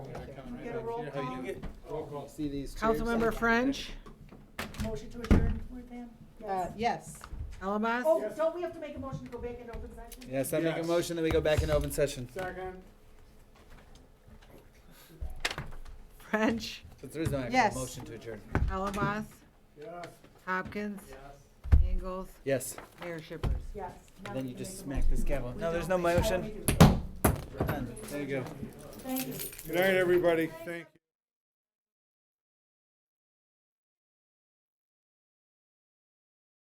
roll know how you call? do it. Roll call. See these chairs? Councilmember French, Motion to adjourn, Pam? uh, Yes. yes, Oh, Alamos, don't we have to make a motion to go back in open session? Yes, I make a Yes. motion that we go back in open session. Second. French, But there is no Yes. actual motion to adjourn. Alamos, Yes. Hopkins, Yes. Ingalls, Yes. Mayor Shippers. Yes. And then you just Now we can make smack a motion. this gavel. No, there's no We don't. I motion. don't need to. We're done. There you go. Thank you. Good night, everybody. Thank you.